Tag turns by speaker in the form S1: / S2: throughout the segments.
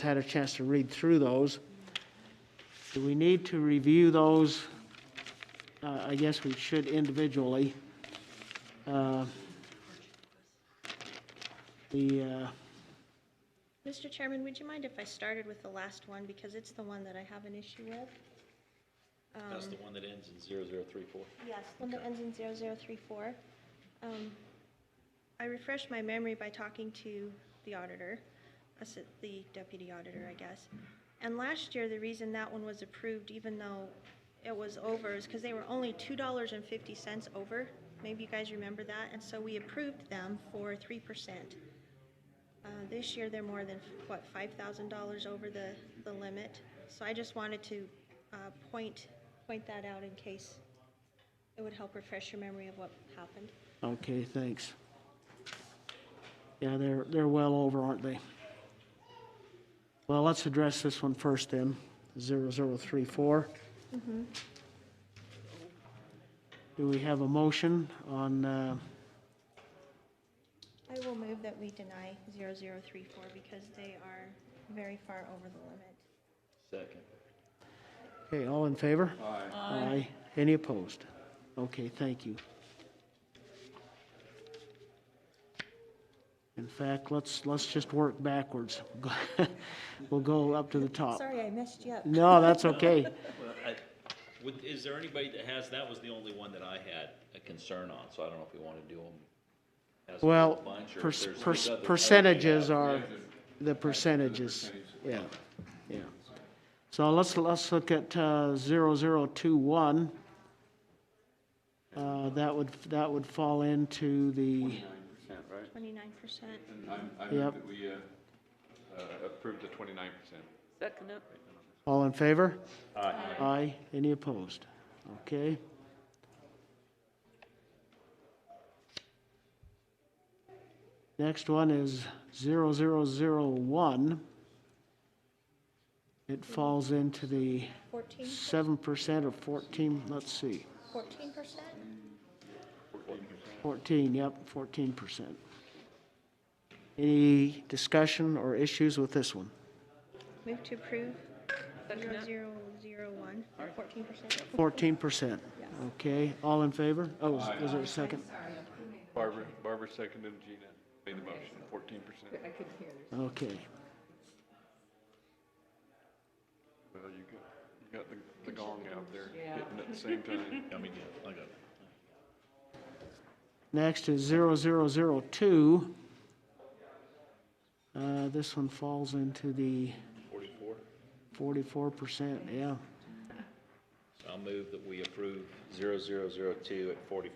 S1: had a chance to read through those. Do we need to review those? Uh, I guess we should individually. Uh, The, uh,
S2: Mr. Chairman, would you mind if I started with the last one, because it's the one that I have an issue with?
S3: That's
S1: Um,
S3: the one that ends in 0034.
S2: Yes, the one that ends in 0034. Um, I refreshed my memory by talking to the auditor, us- the deputy auditor, I guess. And last year, the reason that one was approved, even though it was over, is because they were only $2.50 over. Maybe you guys remember that, and so we approved them for 3%. Uh, This year, they're more than, what, $5,000 over the, the limit? So I just wanted to uh, point, point that out in case it would help refresh your memory of what happened.
S1: okay, thanks. Yeah, they're, they're well over, aren't they? Well, let's address this one first then, 0034. Do we have a motion on, uh,
S2: I will move that we deny 0034 because they are very far over the limit.
S3: Second.
S1: Okay, all in favor? Aye. Aye. Any opposed? Okay, thank you. In fact, let's, let's just work backwards. We'll go up to the top.
S2: Sorry, I messed you up.
S1: Uh, No, that's okay.
S3: Well, I- would- Is there anybody that has, that was the only one that I had a concern on, so I don't know if we want to do them. as a
S1: Well,
S3: whole bunch, or if
S1: per-
S3: there's
S1: per-
S3: other- other
S1: percentages
S3: data.
S1: are, the percentages, yeah, yeah. So let's, let's look at uh, 0021. Uh, That would, that would fall into the,
S4: Twenty-nine percent,
S2: 29%.
S4: right? And I'm, I
S1: Yep.
S4: move that we, uh, uh, approve the twenty-nine percent.
S5: Second it.
S1: all in favor? Aye. Aye, any opposed? Okay. Next one is 0001. It falls into the
S2: 14,
S1: seven percent or fourteen, let's see,
S2: 14%?
S1: fourteen, yep, fourteen percent. Any discussion or issues with this one?
S2: Move to approve
S5: Second it.
S2: 0001, or 14%.
S1: Fourteen percent, okay, all in favor? Oh, is- is there a second?
S4: Barbara, Barbara seconded, Gina made the motion, fourteen percent.
S1: Okay,
S4: Well, you got, you got the, the gong out there, hitting at the same time.
S3: I mean, yeah, I got it.
S1: next is zero zero zero two. Uh, this one falls into the
S3: 44.
S1: forty-four percent, yeah,
S3: I'll move that we approve 0002 at 44%.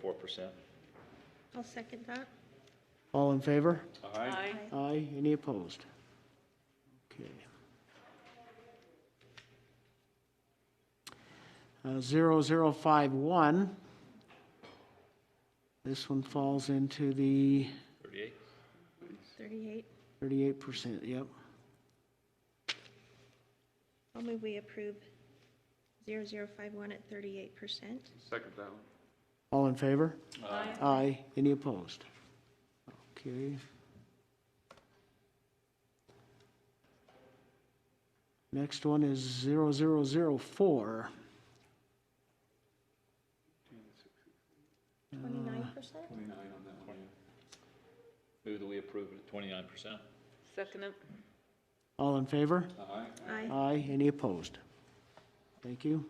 S2: I'll second that.
S1: all in favor?
S5: Aye.
S1: Aye, any opposed? Okay. Uh, 0051. This one falls into the
S3: 38?
S2: 38.
S1: 38%, yep.
S2: I'll move we approve 0051 at 38%.
S4: Second that one.
S1: All in favor?
S5: Aye.
S1: Aye, any opposed? Okay. Next one is 0004.
S2: 29%?
S4: Twenty-nine on that one, yeah.
S3: Move that we approve it at 29%.
S5: Second it.
S1: All in favor?
S4: Aye.
S2: Aye.
S1: Aye, any opposed? Thank you.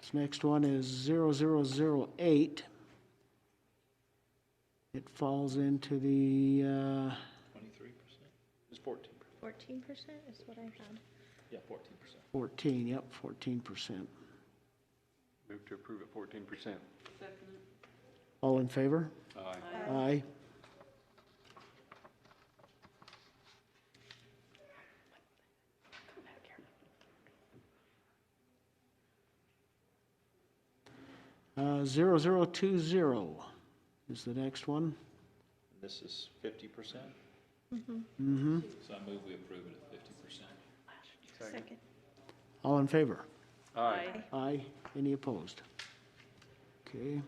S1: This next one is 0008. It falls into the, uh,
S3: 23%? It's 14%.
S2: 14% is what I had.
S3: Yeah, 14%.
S1: 14, yep, 14%.
S4: Move to approve at fourteen percent.
S5: Second it.
S1: All in favor?
S4: Aye.
S1: Aye. Uh, 0020 is the next one.
S3: This is 50%? Mm-hmm. So I move we approve it at 50%.
S2: Second.
S1: All in favor?
S4: Aye.
S1: Aye. Any opposed? Okay.